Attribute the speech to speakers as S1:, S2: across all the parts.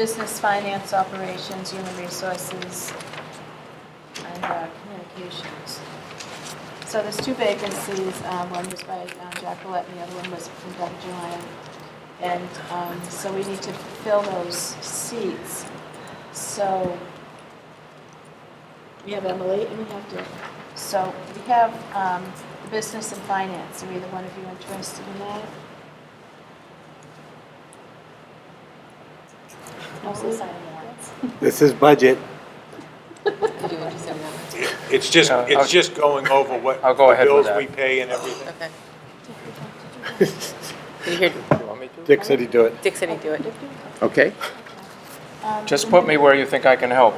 S1: Business, finance, operations, human resources, and uh, communications. So there's two vacancies, um, one was by uh, Jack Gillette and the other one was from Doug Julian. And um, so we need to fill those seats. So we have Emily and we have Dick. So we have um, the business and finance. Are either one of you interested in that?
S2: Mostly signing warrants.
S3: This is budget.
S2: Did you just say warrants?
S4: It's just,
S5: Yeah, I'll-
S4: it's just going over what.
S5: I'll go
S4: the
S5: ahead with that.
S4: Bills we pay and everything.
S6: Okay. You hear
S5: You want me to?
S3: Dick said he'd do it.
S6: Dick said he'd do it.
S1: Dick, do you?
S3: Okay.
S1: Um,
S5: Just put me where you think I can help.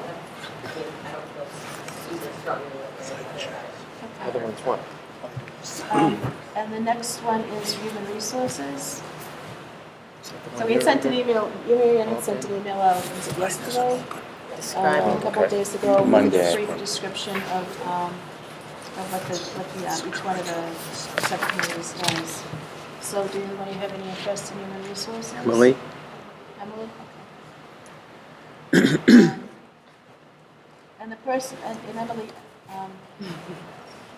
S5: Other ones what?
S1: Um, And the next one is human resources. So we had sent an email, you Mary Ann had sent an email out, was it yesterday? Um, A
S6: Describe.
S1: couple of
S5: Okay.
S1: days ago, with a
S7: Monday.
S1: brief description of, um, of what the, what the, uh, each one of the subcommittees does. So do you, want to have any interest in human resources?
S3: Lily?
S1: Emily? Okay. Um, And the person, and and Emily, um,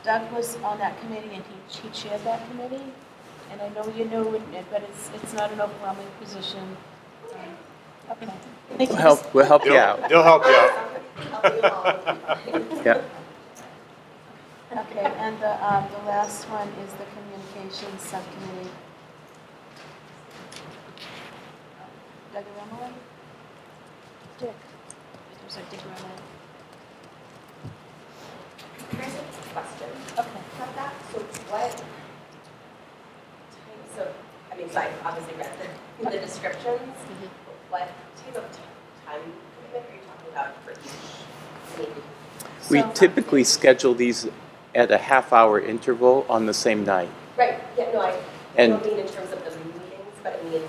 S1: Doug was on that committee and he, he chaired that committee. And I know you know, it, but it's, it's not an overwhelming position. Um, Okay. I think
S7: We'll
S1: he's-
S7: help, we'll help you
S4: They'll,
S7: out.
S4: they'll help you out.
S7: Yeah.
S1: Okay, and the, um, the last one is the communications subcommittee. Doug and Emily? Dick. I'm sorry, Dick and Emily.
S8: Can I ask a question
S1: Okay.
S8: about that? So what types of, I mean, so I obviously read the, the descriptions. but What type of ti- time commitment are you talking about for each meeting?
S7: We
S1: So-
S7: typically schedule these at a half-hour interval on the same night.
S8: Right, yeah, no, I I
S7: And-
S8: don't mean in terms of the meetings, but I mean,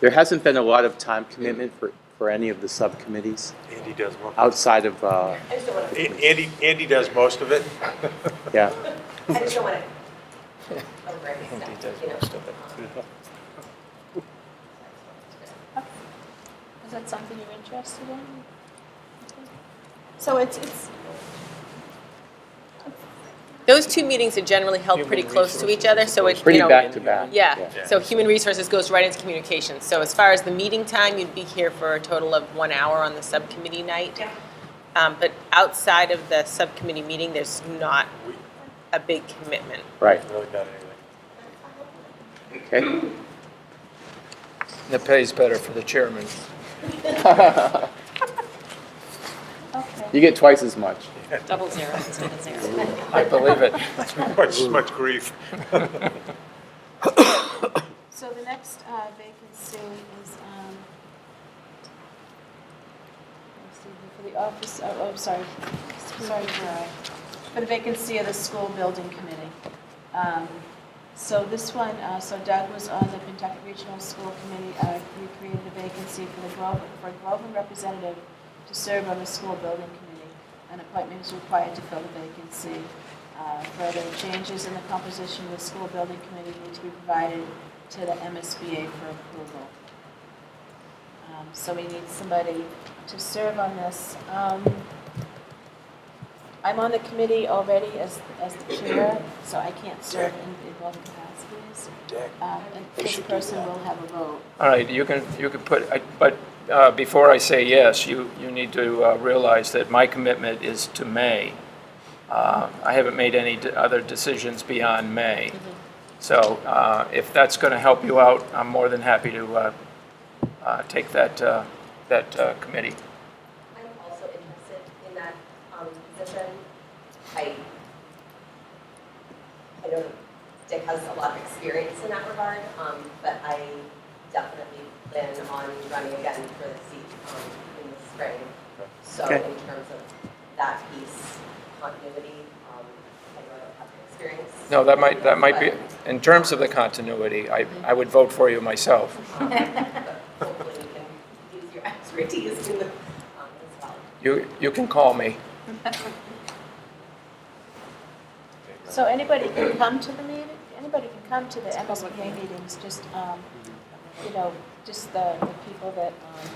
S7: There hasn't been a lot of time commitment for, for any of the subcommittees
S4: Andy does most,
S7: outside of, uh,
S8: I just don't want
S4: A-
S8: to,
S4: Andy, Andy does most of it.
S7: yeah.
S8: I just don't want to over stuff, you know?
S1: Is that something you're interested in? So it's, it's,
S6: Those two meetings are generally held pretty
S5: Human
S6: close to each other, so it, you
S7: Pretty
S6: know.
S7: back to back.
S6: Yeah, so human resources goes right into communications. So as far as the meeting time, you'd be here for a total of one hour on the subcommittee night.
S8: Yeah.
S6: Um, but outside of the subcommittee meeting, there's not a big commitment.
S7: Right,
S4: Really done anything.
S7: okay.
S5: And It pays better for the chairman.
S7: You
S1: okay.
S7: get twice as much.
S2: Double zero instead of zero.
S5: I believe it.
S4: Much, much grief.
S1: So the next uh, vacancy is, um, let's see, for the office, oh, oh, sorry, sorry, Gerard. For the vacancy of the school building committee. Um, So this one, uh, so Doug was on the Kentucky Regional School Committee. Uh, We created a vacancy for the Groveland, for a Groveland representative to serve on the school building committee. An appointment is required to fill the vacancy. Uh, Further changes in the composition of the school building committee need to be provided to the MSBA for approval. Um, So we need somebody to serve on this. Um, I'm on the committee already as, as the chair, so I can't serve in, in both capacities. Um, and this person will have a vote.
S5: All right, you can, you can put, I- but uh, before I say yes, you, you need to uh, realize that my commitment is to May. Uh, I haven't made any d- other decisions beyond May.
S2: Mm-hmm.
S5: So uh, if that's going to help you out, I'm more than happy to uh, uh, take that, uh, that uh, committee.
S8: I'm also interested in that um, position. I, I know Dick has a lot of experience in that regard, um, but I definitely plan on running again for the seat um, in the spring. So
S3: Okay.
S8: in terms of that piece, continuity, um, I know I don't have the experience.
S5: No, that might, that might be, in terms of the continuity, I,
S2: Mm-hmm.
S5: I would vote for you myself.
S8: But, um, but Hopefully you can use your expertise in the, um, as well.
S5: You, you can call me.
S1: So anybody can come to the meeting, anybody can come to the MSBA meetings, just, um, you know, just the, the people that, um,